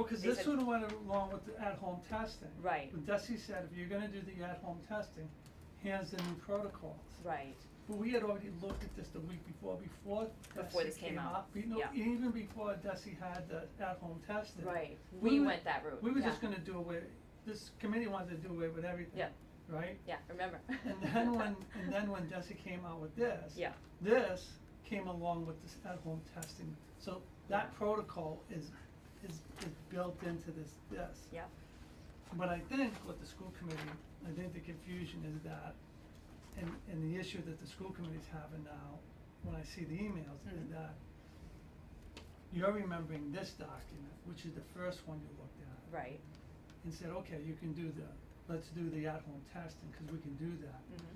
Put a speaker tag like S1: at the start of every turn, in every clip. S1: cause
S2: they
S1: this
S2: said-
S1: would have went along with the at-home testing.
S2: Right.
S1: But Desi said, if you're gonna do the at-home testing, here's the new protocols.
S2: Right,
S1: But we had already looked at this the week before, before
S2: Before this
S1: Desi
S2: came
S1: came
S2: out,
S1: up, you know,
S2: yeah.
S1: even before Desi had the at-home testing.
S2: right,
S1: We
S2: we
S1: were-
S2: went that route, yeah.
S1: We were just gonna do away, this committee wanted to do away with everything.
S2: Yeah.
S1: Right?
S2: Yeah, remember.
S1: And then when, and then when Desi came out with this.
S2: Yeah,
S1: This came along with this at-home testing, so that protocol is, is, is built into this, this.
S2: yeah,
S1: But I think with the school committee, I think the confusion is that, and, and the issue that the school committee's having now, when I see the emails, is
S2: Mm.
S1: that you're remembering this document, which is the first one you looked at,
S2: right,
S1: and said, okay, you can do the, let's do the at-home testing, cause we can do that
S2: mhm,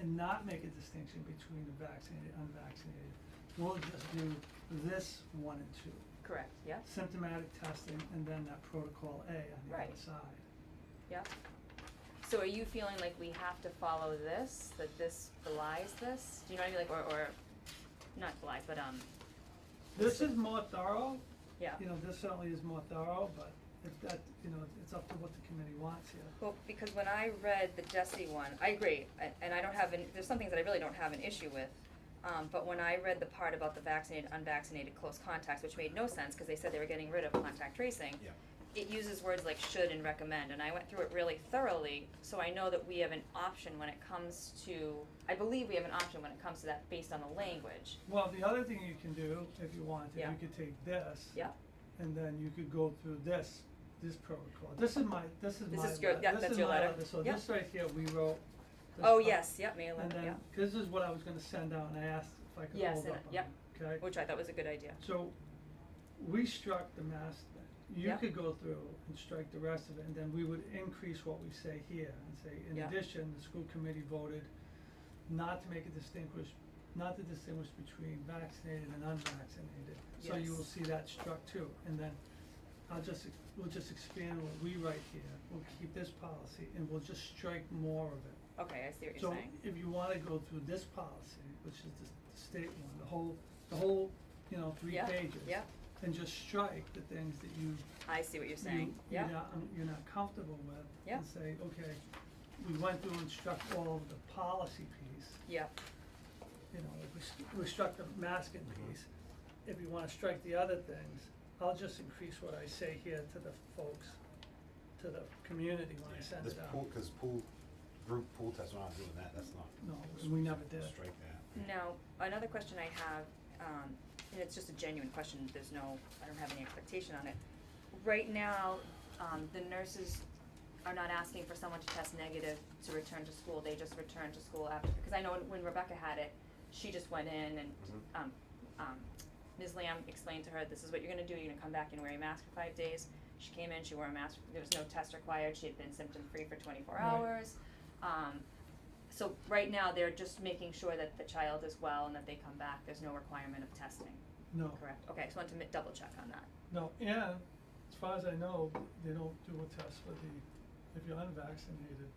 S1: and not make a distinction between the vaccinated, unvaccinated. We'll just do this one and two,
S2: correct, yeah,
S1: symptomatic testing and then that protocol A on the other
S2: Right.
S1: side.
S2: yeah. So are you feeling like we have to follow this, that this belies this, do you know what I mean, like, or, or, not belie, but, um,
S1: This is more thorough,
S2: yeah.
S1: you know, this certainly is more thorough, but if that, you know, it's up to what the committee wants here.
S2: Well, because when I read the Desi one, I agree, a- and I don't have, an- there's some things that I really don't have an issue with. Um, but when I read the part about the vaccinated, unvaccinated, close contacts, which made no sense, cause they said they were getting rid of contact tracing.
S3: Yeah.
S2: It uses words like should and recommend, and I went through it really thoroughly, so I know that we have an option when it comes to, I believe we have an option when it comes to that based on the language.
S1: Well, the other thing you can do, if you want, to,
S2: Yeah.
S1: you could take this
S2: Yeah,
S1: and then you could go through this, this protocol. This is my, this is
S2: This
S1: my,
S2: is your-
S1: le-
S2: yeah,
S1: this
S2: that's
S1: is
S2: your
S1: my
S2: letter.
S1: letter, so
S2: Yeah.
S1: this right here, we wrote. this
S2: oh
S1: up.
S2: yes, yep, May
S1: And
S2: eleventh, yeah,
S1: then, cause this is what I was gonna send out, and I asked if I could
S2: Yes,
S1: hold
S2: and-
S1: up on it, okay?
S2: yep. which I thought was a good idea,
S1: So, we struck the mask thing. You
S2: Yep.
S1: could go through and strike the rest of it, and then we would increase what we say here and say, in
S2: Yeah.
S1: addition, the school committee voted not to make a distinguish, not to distinguish between vaccinated and unvaccinated. So you will
S2: Yes.
S1: see that struck too, and then I'll just, ex- we'll just expand what we write here, we'll keep this policy, and we'll just strike more of it.
S2: okay, I see what
S1: So
S2: you're saying,
S1: if you wanna go through this policy, which is the the state one, the whole, the whole, you know, three
S2: Yeah,
S1: pages.
S2: yeah.
S1: And just strike the things that you,
S2: I see what you're
S1: you,
S2: saying,
S1: you're
S2: yeah,
S1: not, um, you're not comfortable with.
S2: Yeah.
S1: And say, okay, we went through and struck all of the policy piece,
S2: yeah,
S1: you know, like we, st- we struck the masking piece. If you wanna strike the other things, I'll just increase what I say here to the folks, to the community when I send
S3: This
S1: it out.
S3: pool, cause pool, group pool test, we're not doing that, that's not.
S1: No, we never did.
S3: Strike that.
S2: Now, another question I have, um, and it's just a genuine question, there's no, I don't have any expectation on it. Right now, um, the nurses are not asking for someone to test negative to return to school, they just return to school after, because I know when- when Rebecca had it, she just went in and,
S3: Mhm.
S2: um, um, Ms. Lamb explained to her, this is what you're gonna do, you're gonna come back and wear a mask for five days. She came in, she wore a mask, there was no test required, she had been symptom-free for twenty-four
S1: Right.
S2: hours. Um, so right now, they're just making sure that the child is well and that they come back, there's no requirement of testing,
S1: No.
S2: correct? Okay, I just wanted to mi- double check on that.
S1: No, and as far as I know, they don't do a test for the, if you're unvaccinated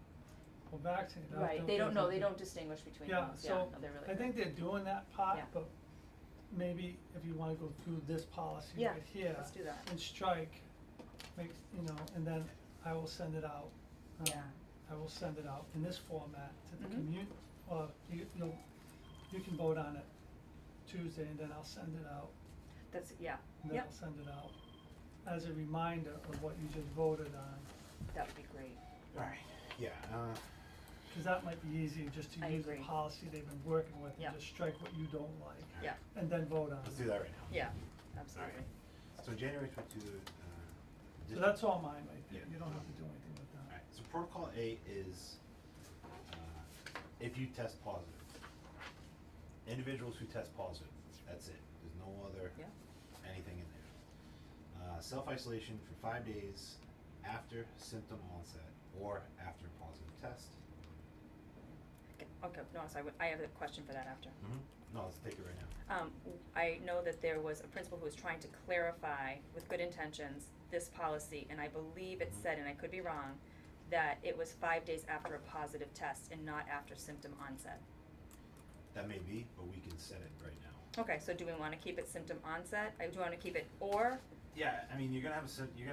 S1: or vaccinated. I
S2: Right, they don't know,
S1: think
S2: they don't distinguish between
S1: Yeah,
S2: those, yeah, no,
S1: so
S2: they're really
S1: I
S2: good.
S1: think they're doing that part,
S2: Yeah.
S1: but maybe if you wanna go through this policy
S2: Yeah,
S1: right here
S2: let's do that.
S1: and strike, make, you know, and then I will send it out. um,
S2: Yeah.
S1: I will send it out in this format to the
S2: Mhm.
S1: commu- or you, you'll, you can vote on it Tuesday and then I'll send it out
S2: That's, yeah,
S1: and then
S2: yep,
S1: I'll send it out as a reminder of what you just voted on,
S2: that would be great,
S3: Alright, yeah, uh,
S1: cause that might be easier just to
S2: I
S1: use the
S2: agree.
S1: policy they've been working with
S2: Yeah.
S1: and just strike what you don't like,
S2: yeah,
S1: and then vote on it.
S3: let's do that right now.
S2: yeah, absolutely.
S3: So January twenty two, uh.
S1: So that's all mine, right there,
S3: Yeah.
S1: you don't have to do anything with that.
S3: Alright, so protocol A is, uh, if you test positive. Individuals who test positive, that's it, there's no other.
S2: Yeah.
S3: Anything in there. Uh, self-isolation for five days after symptom onset or after positive test.
S2: Okay, Okay, no, so I would, I have a question for that after.
S3: Mm-hmm. No, let's take it right now.
S2: Um, I know that there was a principal who was trying to clarify with good intentions this policy, and I believe it said, and I could be wrong, that it was five days after a positive test and not after symptom onset.
S3: That may be, but we can set it right now.
S2: Okay, so do we wanna keep it symptom onset? I do wanna keep it or
S3: Yeah, I mean, you're gonna have a, sym- you're gonna